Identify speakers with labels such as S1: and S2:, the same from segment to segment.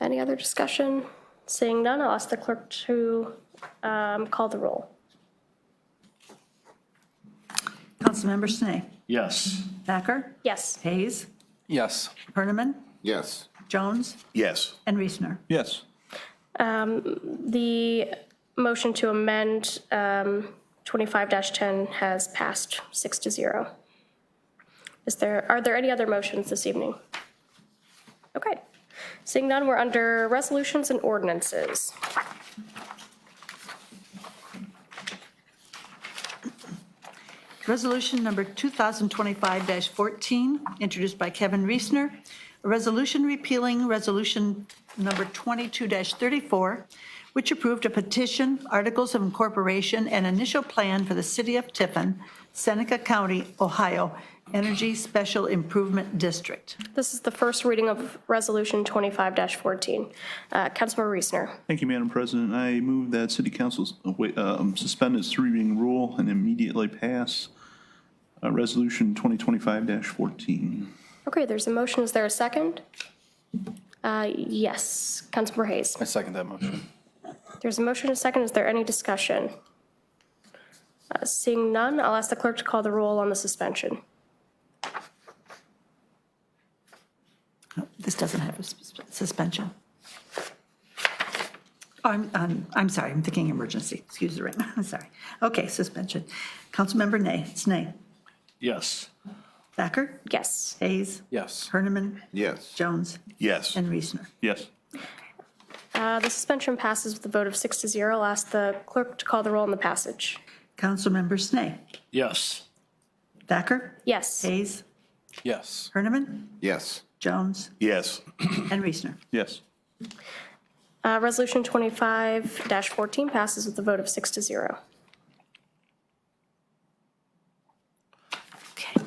S1: Any other discussion? Seeing none, I'll ask the clerk to um, call the roll.
S2: Councilmember Snee,
S3: Yes.
S2: Thacker,
S1: Yes.
S2: Hayes,
S4: Yes.
S2: Herniman,
S5: Yes.
S2: Jones,
S5: Yes.
S2: and Reesner.
S4: Yes.
S1: The motion to amend um, 25-10 has passed six to zero. Is there, are there any other motions this evening? Okay. Seeing none, we're under resolutions and ordinances.
S2: Resolution number 2025-14, introduced by Kevin Reesner, a resolution repealing resolution number 22-34, which approved a petition, articles of incorporation, and initial plan for the city of Tiffin, Seneca County, Ohio, Energy Special Improvement District.
S1: This is the first reading of Resolution 25-14. Uh, Councilmember Reesner.
S6: Thank you, Madam President. I move that City Council uh, wait, um, suspend its three reading rule and immediately pass uh, Resolution 2025-14.
S1: Okay, there's a motion. Is there a second? Uh, Yes, Councilmember Hayes.
S4: I second that motion.
S1: There's a motion and a second. Is there any discussion? Uh, Seeing none, I'll ask the clerk to call the roll on the suspension.
S2: This doesn't have a sus- suspension. I'm, I'm, I'm sorry, I'm thinking emergency, excuse the ring, I'm sorry. Okay, suspension. Councilmember Nay, Snee,
S3: Yes.
S2: Thacker,
S1: Yes.
S2: Hayes,
S4: Yes.
S2: Herniman,
S5: Yes.
S2: Jones,
S5: Yes.
S2: and Reesner.
S6: Yes.
S1: Uh, The suspension passes with a vote of six to zero. I'll ask the clerk to call the roll on the passage.
S2: Councilmember Snee,
S3: Yes.
S2: Thacker,
S1: Yes.
S2: Hayes,
S4: Yes.
S2: Herniman,
S5: Yes.
S2: Jones,
S5: Yes.
S2: and Reesner.
S6: Yes.
S1: Uh, Resolution 25-14 passes with a vote of six to zero.
S2: Okay.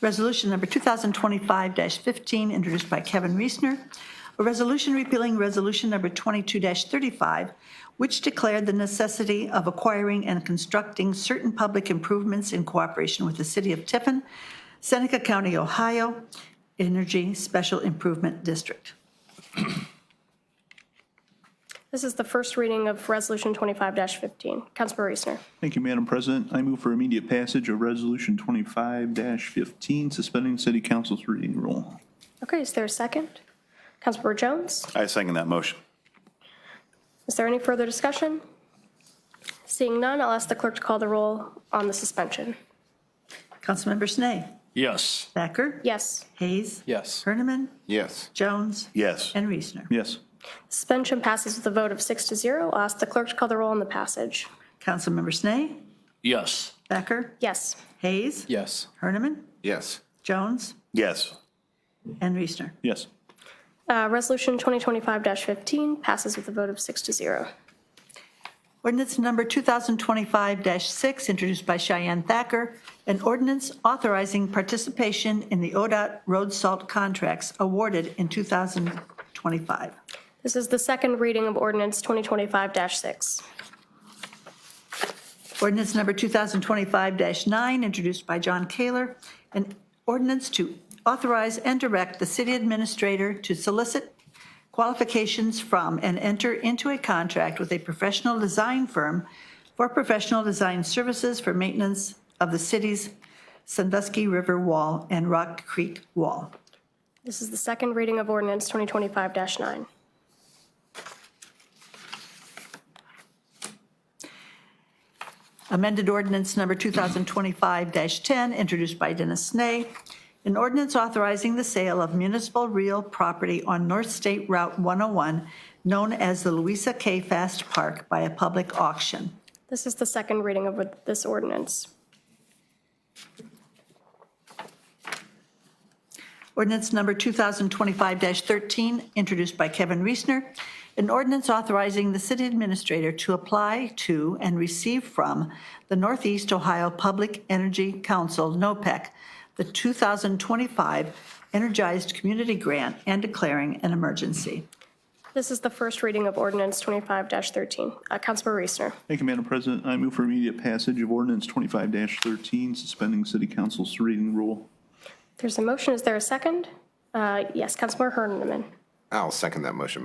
S2: Resolution number 2025-15, introduced by Kevin Reesner, a resolution repealing resolution number 22-35, which declared the necessity of acquiring and constructing certain public improvements in cooperation with the city of Tiffin, Seneca County, Ohio, Energy Special Improvement District.
S1: This is the first reading of Resolution 25-15. Councilmember Reesner.
S6: Thank you, Madam President. I move for immediate passage of Resolution 25-15, suspending City Council's reading rule.
S1: Okay, is there a second? Councilmember Jones?
S5: I second that motion.
S1: Is there any further discussion? Seeing none, I'll ask the clerk to call the roll on the suspension.
S2: Councilmember Snee,
S3: Yes.
S2: Thacker,
S1: Yes,
S2: Hayes,
S4: Yes.
S2: Herniman,
S5: Yes.
S2: Jones,
S5: Yes.
S2: and Reesner.
S6: Yes.
S1: suspension passes with a vote of six to zero. I'll ask the clerk to call the roll on the passage.
S2: Councilmember Snee,
S3: Yes.
S2: Thacker,
S1: Yes,
S2: Hayes,
S4: Yes.
S2: Herniman,
S5: Yes.
S2: Jones,
S5: Yes.
S2: and Reesner.
S6: Yes.
S1: uh, Resolution 2025-15 passes with a vote of six to zero.
S2: Ordinance number 2025-6, introduced by Cheyenne Thacker, an ordinance authorizing participation in the ODOT road salt contracts awarded in 2025.
S1: This is the second reading of ordinance 2025-6.
S2: Ordinance number 2025-9, introduced by John Kaler, an ordinance to authorize and direct the city administrator to solicit qualifications from and enter into a contract with a professional design firm for professional design services for maintenance of the city's Sandusky River Wall and Rock Creek Wall.
S1: This is the second reading of ordinance 2025-9.
S2: Amended ordinance number 2025-10, introduced by Dennis Snee, an ordinance authorizing the sale of municipal real property on North State Route 101, known as the Louisa K. Fast Park, by a public auction.
S1: This is the second reading of this ordinance.
S2: Ordinance number 2025-13, introduced by Kevin Reesner, an ordinance authorizing the city administrator to apply to and receive from the Northeast Ohio Public Energy Council, NOPEC, E the 2025 Energized Community Grant and declaring an emergency.
S1: This is the first reading of ordinance 25-13. Uh, Councilmember Reesner.
S6: Thank you, Madam President. I move for immediate passage of Ordinance 25-13, suspending City Council's reading rule.
S1: There's a motion, is there a second? Uh, Yes, Councilmember Herniman.
S5: I'll second that motion,